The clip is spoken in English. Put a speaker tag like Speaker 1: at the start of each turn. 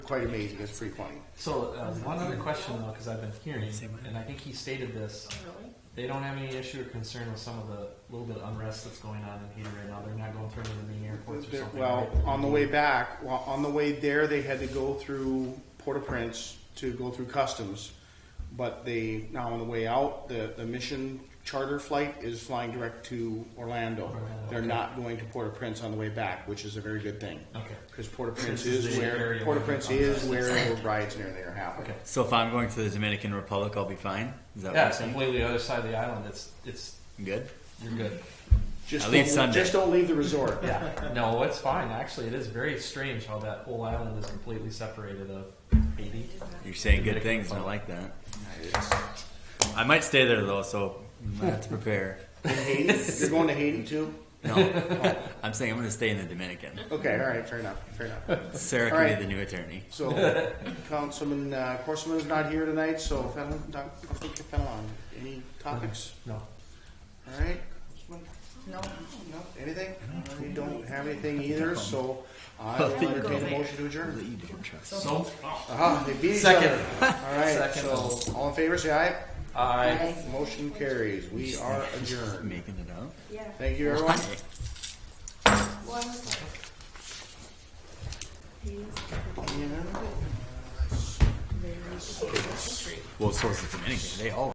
Speaker 1: quite amazing. It's pretty funny.
Speaker 2: So uh, one other question though, because I've been hearing, and I think he stated this. They don't have any issue or concern with some of the little bit of unrest that's going on in Haiti right now. They're not going through any of the main airports or
Speaker 1: There-
Speaker 2: something.
Speaker 1: Well,
Speaker 2: right?
Speaker 1: on the way back, well, on the way there, they had to go through Port-au-Prince to go through customs. But they, now on the way out, the, the mission charter flight is flying direct to Orlando.
Speaker 2: Orlando,
Speaker 1: They're
Speaker 2: okay.
Speaker 1: not going to Port-au-Prince on the way back, which is a very good thing.
Speaker 2: Okay.
Speaker 1: Because Port-au-Prince
Speaker 2: This is
Speaker 1: is
Speaker 2: the
Speaker 1: where,
Speaker 2: area
Speaker 1: Port-au-Prince
Speaker 2: where-
Speaker 1: is where the riots and everything are happening.
Speaker 2: Okay.
Speaker 3: So if I'm going to the Dominican Republic, I'll be fine. Is that
Speaker 2: Yeah,
Speaker 3: what
Speaker 2: it's
Speaker 3: you're saying?
Speaker 2: completely the other side of the island. It's it's
Speaker 3: I'm good.
Speaker 2: you're good.
Speaker 1: Just
Speaker 3: At least
Speaker 1: don't-
Speaker 3: Sunday.
Speaker 1: Just don't leave the resort.
Speaker 2: Yeah. No, it's fine. Actually, it is very strange how that whole island is completely separated of Haiti.
Speaker 3: You're saying good
Speaker 2: Dominican
Speaker 3: things, and I like that. I might stay there though, so I might have to prepare.
Speaker 1: In Haiti, you're going to Haiti too?
Speaker 3: No, I'm saying I'm going to stay in the Dominican.
Speaker 1: Okay, all right, fair enough, fair enough.
Speaker 3: Sarah can
Speaker 1: All right.
Speaker 3: be the new attorney.
Speaker 1: So, Councilman uh, Corstman is not here tonight, so Fennel, Doc- Councilman Fennelon, any topics?
Speaker 2: No.
Speaker 1: All right? Councilman?
Speaker 4: No.
Speaker 1: No, anything? We don't have anything either, so I will entertain a motion to adjourn.
Speaker 2: So
Speaker 1: Aha, they beat each
Speaker 2: Second.
Speaker 1: other. All right,
Speaker 2: Second.
Speaker 1: so, all in favor, say aye.
Speaker 2: I.
Speaker 1: Motion carries, we are adjourned.
Speaker 3: Making it up.
Speaker 4: Yeah.
Speaker 1: Thank you, everyone.
Speaker 4: One second.
Speaker 1: Yeah.
Speaker 3: Well, so is the Dominican. They all.